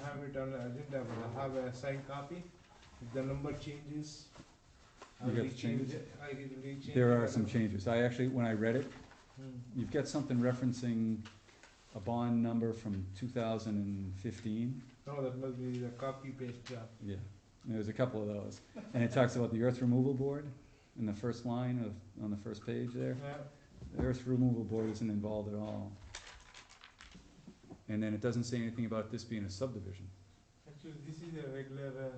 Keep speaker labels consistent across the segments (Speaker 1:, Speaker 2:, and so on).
Speaker 1: have it on the agenda, but I have a signed copy. If the number changes, I'll
Speaker 2: You got the
Speaker 1: rechange
Speaker 2: changes?
Speaker 1: it, I will rechange. it.
Speaker 2: There are some changes. I actually, when I read it,
Speaker 1: Hmm.
Speaker 2: you've got something referencing a bond number from two thousand and fifteen.
Speaker 1: No, that must be the copy paste job.
Speaker 2: Yeah. And there's a couple of those. And it talks about the earth removal board in the first line of, on the first page there.
Speaker 1: Yeah,
Speaker 2: The earth removal board isn't involved at all. And then it doesn't say anything about this being a subdivision.
Speaker 1: actually, this is a regular, uh,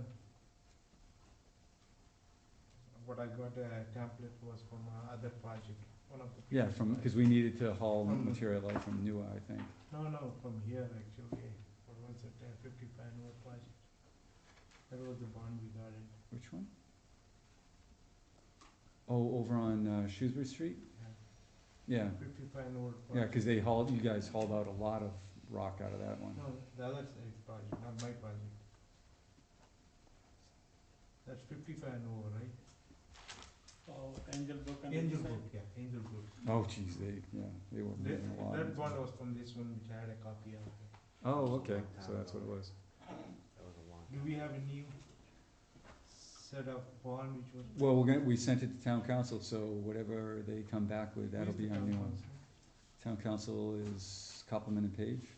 Speaker 1: what I got a template was from uh, other project, one of the.
Speaker 2: Yeah,
Speaker 1: previous
Speaker 2: from,
Speaker 1: project.
Speaker 2: cause we needed to haul
Speaker 1: From-
Speaker 2: material out from Newa, I think.
Speaker 1: No, no, from here actually, what was it, uh, fifty panel project. That was the bond we got it,
Speaker 2: Which one? Oh, over on uh, Shrewsbury Street?
Speaker 1: yeah,
Speaker 2: Yeah,
Speaker 1: fifty panel project.
Speaker 2: yeah, cause they hauled, you guys hauled out a lot of rock out of that one.
Speaker 1: No, the other side project, not my project. That's fifty-five and over, right?
Speaker 3: Oh, Angel Brook and.
Speaker 1: Angel
Speaker 3: Hillside.
Speaker 1: Group, yeah, Angel Group.
Speaker 2: Oh geez, they, yeah, they were
Speaker 1: That,
Speaker 2: moving a lot.
Speaker 1: that one was from this one, which I had a copy of.
Speaker 2: Oh, okay, so that's what it was.
Speaker 1: Do we have a new set of bond which was?
Speaker 2: Well, we're gonna, we sent it to town council, so whatever they come back with, that'll
Speaker 1: Who's the
Speaker 2: be our
Speaker 1: town
Speaker 2: new one.
Speaker 1: council?
Speaker 2: Town council is Copeland and Page,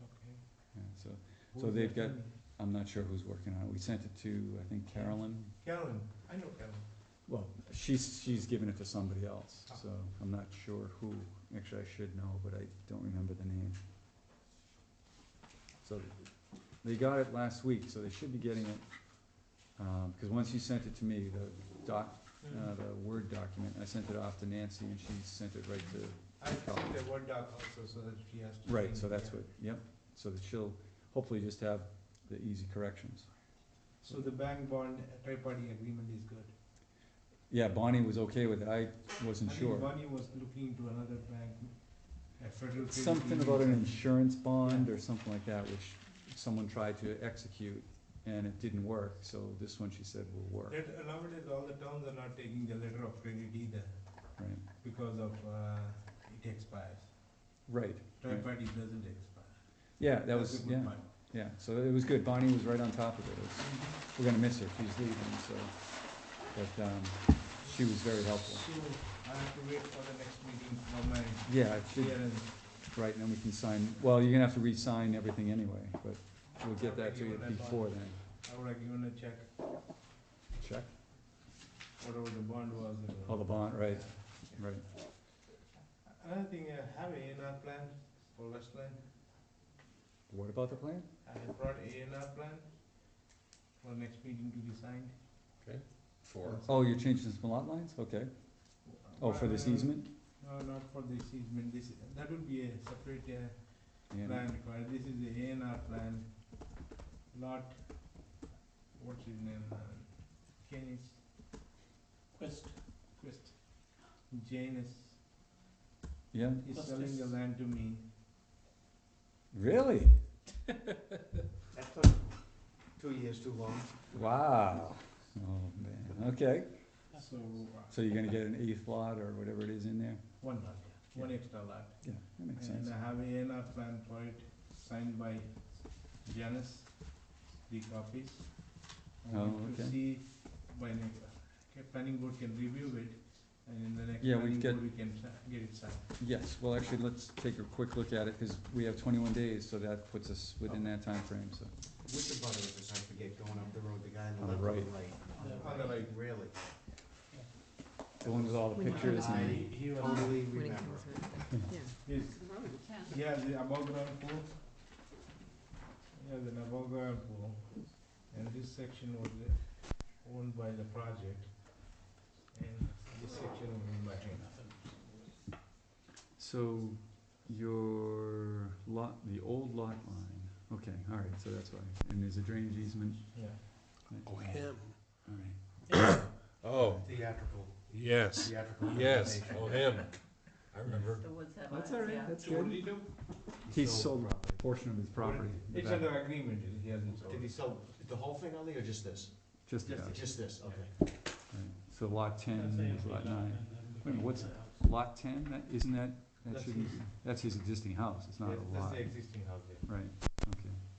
Speaker 1: Okay.
Speaker 2: yeah, so,
Speaker 1: Who
Speaker 2: So
Speaker 1: is
Speaker 2: they've
Speaker 1: that
Speaker 2: got-
Speaker 1: one?
Speaker 2: I'm not sure who's working on it. We sent it to, I think Carolyn.
Speaker 1: Karen, I know Karen.
Speaker 2: Well, she's, she's given it to somebody else, so I'm not sure who. Actually, I should know, but I don't remember the name. So they got it last week, so they should be getting it. Um, cause once you sent it to me, the doc, uh, the Word document, I sent it off to Nancy and she sent it right to
Speaker 1: I sent a Word doc also, so that she has to.
Speaker 2: Right,
Speaker 1: change
Speaker 2: so
Speaker 1: it,
Speaker 2: that's
Speaker 1: yeah.
Speaker 2: what, yep, so that she'll hopefully just have the easy corrections.
Speaker 1: So the bank bond uh, tri-party agreement is good.
Speaker 2: Yeah, Bonnie was okay with it, I wasn't
Speaker 1: I think
Speaker 2: sure.
Speaker 1: Bonnie was looking into another bank, a federal. credit
Speaker 2: Something about an
Speaker 1: union.
Speaker 2: insurance bond or something like that, which someone tried to execute and it didn't work, so this one she said will work,
Speaker 1: That, uh, nowadays, all the towns are not taking the letter of credit either
Speaker 2: right?
Speaker 1: because of, uh, it expires.
Speaker 2: Right,
Speaker 1: Third
Speaker 2: Right.
Speaker 1: party doesn't expire.
Speaker 2: yeah, that
Speaker 1: That's
Speaker 2: was,
Speaker 1: a good
Speaker 2: yeah,
Speaker 1: part.
Speaker 2: yeah, so it was good, Bonnie was right on top of it, It's- we're gonna miss her, she's leaving, so. But, um, she was very helpful.
Speaker 1: So I have to wait for the next meeting for my
Speaker 2: Yeah, it should,
Speaker 1: clearance.
Speaker 2: Right, and then we can sign, well, you're gonna have to re-sign everything anyway, but we'll get that to you
Speaker 1: Okay,
Speaker 2: before then.
Speaker 1: I would have given a check,
Speaker 2: Check?
Speaker 1: whatever the bond was. and
Speaker 2: Oh, the bond, right, right.
Speaker 1: Another thing, I have A and R plan for Westland.
Speaker 2: What about the plan?
Speaker 1: I have brought A and R plan for next meeting to be signed.
Speaker 4: Four.
Speaker 2: Oh, you're changing some lot lines? Okay. Oh, for this
Speaker 1: Uh,
Speaker 2: easement?
Speaker 1: No, not for this easement, this, that would be a separate uh,
Speaker 2: Yeah,
Speaker 1: plan required, this is the A and R plan, lot, what's his name, uh, Kenneth
Speaker 3: Quest,
Speaker 1: Quest, Janus,
Speaker 2: yeah,
Speaker 1: he's selling the land to me.
Speaker 2: really?
Speaker 4: That took two years too long.
Speaker 2: Wow. Oh, man, okay.
Speaker 1: So, uh,
Speaker 2: So you're gonna get an eighth lot or whatever it is in there?
Speaker 1: one lot, one extra lot,
Speaker 2: Yeah, that makes sense.
Speaker 1: and uh, I have A and R plan for it, signed by Janus, three copies. I
Speaker 2: Oh,
Speaker 1: want to
Speaker 2: okay.
Speaker 1: see by next, okay, planning board can review it, and in the next
Speaker 2: Yeah, we
Speaker 1: planning
Speaker 2: get-
Speaker 1: board, we can si- get it signed.
Speaker 2: Yes, well, actually, let's take a quick look at it, cause we have twenty-one days, so that puts us within that time frame. so.
Speaker 4: Which of butters is, I forget, going up the road, the guy
Speaker 2: On
Speaker 4: on
Speaker 2: the
Speaker 4: the left or
Speaker 2: right.
Speaker 4: the right?
Speaker 1: On the right.
Speaker 4: Really?
Speaker 2: The one with all the
Speaker 5: When you-
Speaker 2: pictures and.
Speaker 4: I totally
Speaker 5: when it
Speaker 4: remember.
Speaker 5: comes up, yeah.
Speaker 1: Yes, yeah, the above ground pool. Yeah, the above ground pool, and this section was uh, owned by the project, and this section was owned by him.
Speaker 2: So your lot, the old lot line, okay, all right, so that's why, and there's a drainage easement,
Speaker 1: Yeah.
Speaker 6: Oh, him.
Speaker 2: all right.
Speaker 6: Oh,
Speaker 4: Theatrical,
Speaker 6: yes,
Speaker 4: theatrical.
Speaker 6: yes,
Speaker 4: presentation.
Speaker 6: oh, him. I remember.
Speaker 2: That's all right, that's
Speaker 3: so what do
Speaker 2: good.
Speaker 3: you do?
Speaker 2: He
Speaker 4: sold
Speaker 2: sold a portion of his property, the
Speaker 1: It's
Speaker 2: back-
Speaker 1: under agreement, he hasn't sold.
Speaker 4: Did he sell the whole thing on there or just this?
Speaker 2: just about, right,
Speaker 4: Just this, okay.
Speaker 2: so lot ten
Speaker 3: That's a
Speaker 2: is lot
Speaker 3: lot
Speaker 2: nine.
Speaker 3: and then
Speaker 2: Wait, what's-
Speaker 3: the house.
Speaker 2: Lot ten, that, isn't that, that
Speaker 1: That's
Speaker 2: shouldn't,
Speaker 1: his.
Speaker 2: that's his existing house, it's not
Speaker 1: Yes,
Speaker 2: a
Speaker 1: That's
Speaker 2: lot,
Speaker 1: the existing house there.
Speaker 2: right,